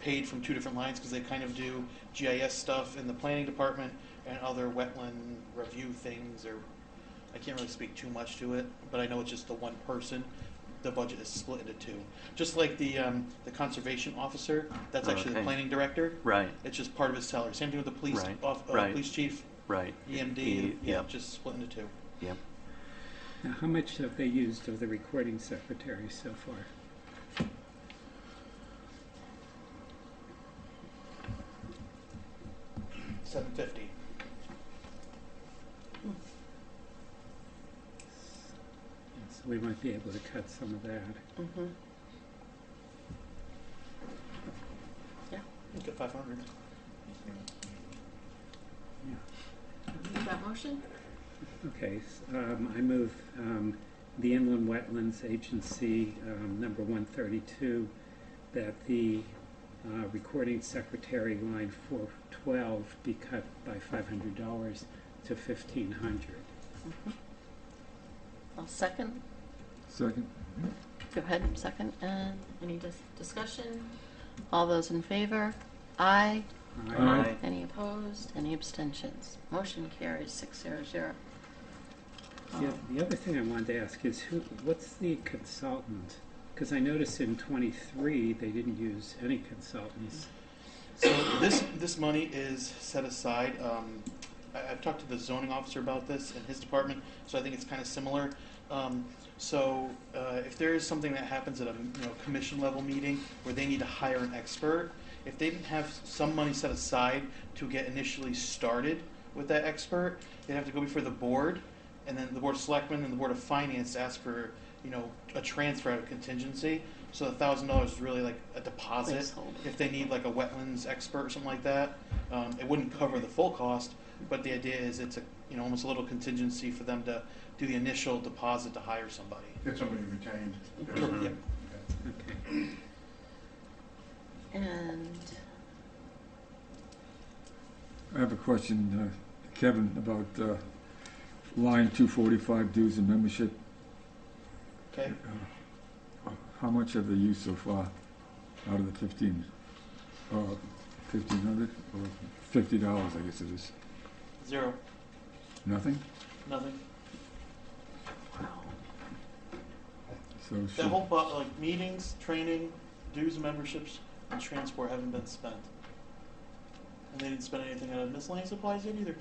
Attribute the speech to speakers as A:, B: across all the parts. A: paid from two different lines because they kind of do GIS stuff in the planning department and other wetland review things or, I can't really speak too much to it, but I know it's just the one person. The budget is split into two. Just like the, um, the conservation officer, that's actually the
B: Okay.
A: planning director.
B: Right,
A: It's just part of his salary. Same thing with the police,
B: Right,
A: off- uh,
B: right.
A: police chief,
B: right.
A: EMD,
B: E-
A: yeah,
B: Yep,
A: just split into two.
B: yep.
C: Now, how much have they used of the recording secretary so far?
A: Seven fifty.
C: So we might be able to cut some of that.
D: Mm-hmm.
A: You get five hundred.
C: Yeah.
D: Is that motion?
C: Okay, s- um, I move, um, the inland wetlands agency, um, number one thirty-two, that the, uh, recording secretary line four twelve be cut by five hundred dollars to fifteen hundred.
D: I'll second.
E: Second.
D: Go ahead, second. And any dis- discussion? All those in favor? Aye.
C: Um,
E: Aye.
D: Any opposed? Any abstentions? Motion carries six zero zero. Oh,
C: Yeah, the other thing I wanted to ask is who, what's the consultant? Because I noticed in twenty-three, they didn't use any consultants.
A: So this, this money is set aside, um, I, I've talked to the zoning officer about this in his department, so I think it's kind of similar. Um, so, uh, if there is something that happens at a, you know, commission level meeting where they need to hire an expert, if they didn't have some money set aside to get initially started with that expert, they'd have to go before the board, and then the board of selectmen and the board of finance to ask for, you know, a transfer out of contingency. So a thousand dollars is really like a deposit
D: Placeholder.
A: if they need like a wetlands expert or something like that, um, it wouldn't cover the full cost, but the idea is it's a, you know, almost a little contingency for them to do the initial deposit to hire somebody.
F: Get somebody retained.
A: Mhm. Yep.
C: Okay.
D: And
E: I have a question, uh, Kevin, about uh, line 245 dues and membership. Uh,
A: Okay,
E: How much have they used so far out of the 15, uh, 1,500 or $50, I guess it is?
A: zero,
E: Nothing?
A: nothing.
E: So
A: That
E: should-
A: whole bu, like meetings, training, dues, and memberships, and transport haven't been spent. And they didn't spend anything out of miscellaneous supplies yet either.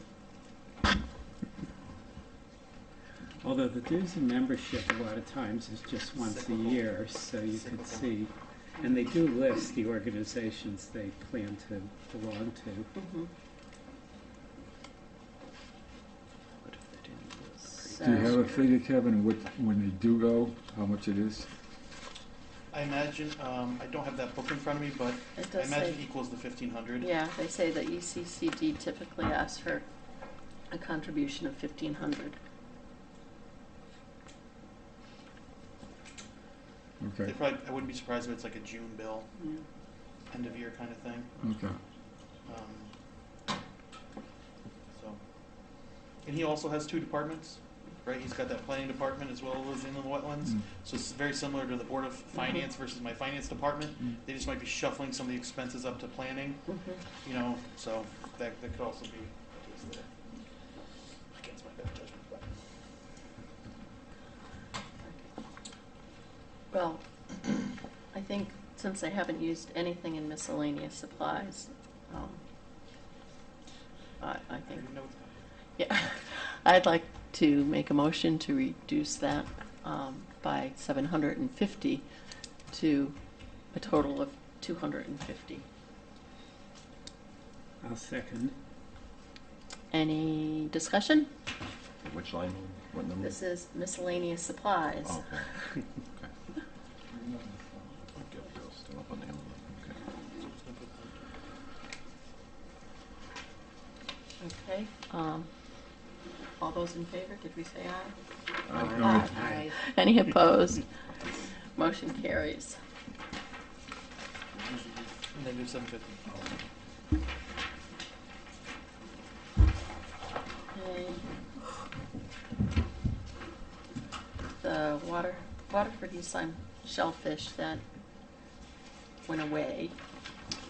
C: Although the dues and membership a lot of times is just once a
A: Cyclical.
C: year, so you can
A: Cyclical.
C: see. And they do list the organizations they plan to belong to.
D: mhm.
B: What if they didn't do it?
D: So-
E: Do you have a figure, Kevin, what, when they do go, how much it is?
A: I imagine, um, I don't have that book in front of me, but
D: it
A: I
D: does say,
A: imagine equals the fifteen hundred.
D: yeah, they say that E ECCD typically asks for a contribution of fifteen hundred.
A: They
E: Okay,
A: probably, I wouldn't be surprised if it's like a June bill, end of year kind of thing.
E: okay.
A: Um, so, and he also has two departments, right? He's got that planning department as well as inland wetlands.
E: Mm.
A: So it's very similar to the board of finance versus my finance department.
E: Mm.
A: They just might be shuffling some of the expenses up to planning, you know. So that, that could also be a case there. Against my better judgment, but
D: Well, I think since they haven't used anything in miscellaneous supplies, um, I, I
A: I
D: think,
A: already know what's coming.
D: yeah, I'd like to make a motion to reduce that, um, by seven hundred and fifty to a total of two hundred and fifty.
C: I'll second.
D: Any discussion?
B: Which line, what number?
D: This is miscellaneous supplies.
B: Oh, okay. Okay. Still up on the envelope, okay.
D: Okay, um, all those in favor, did we say aye?
E: Aye.
D: Aye. Any opposed? Motion carries.
A: And they do seven fifty.
D: Okay. The water, Waterford East Lyme shellfish that went away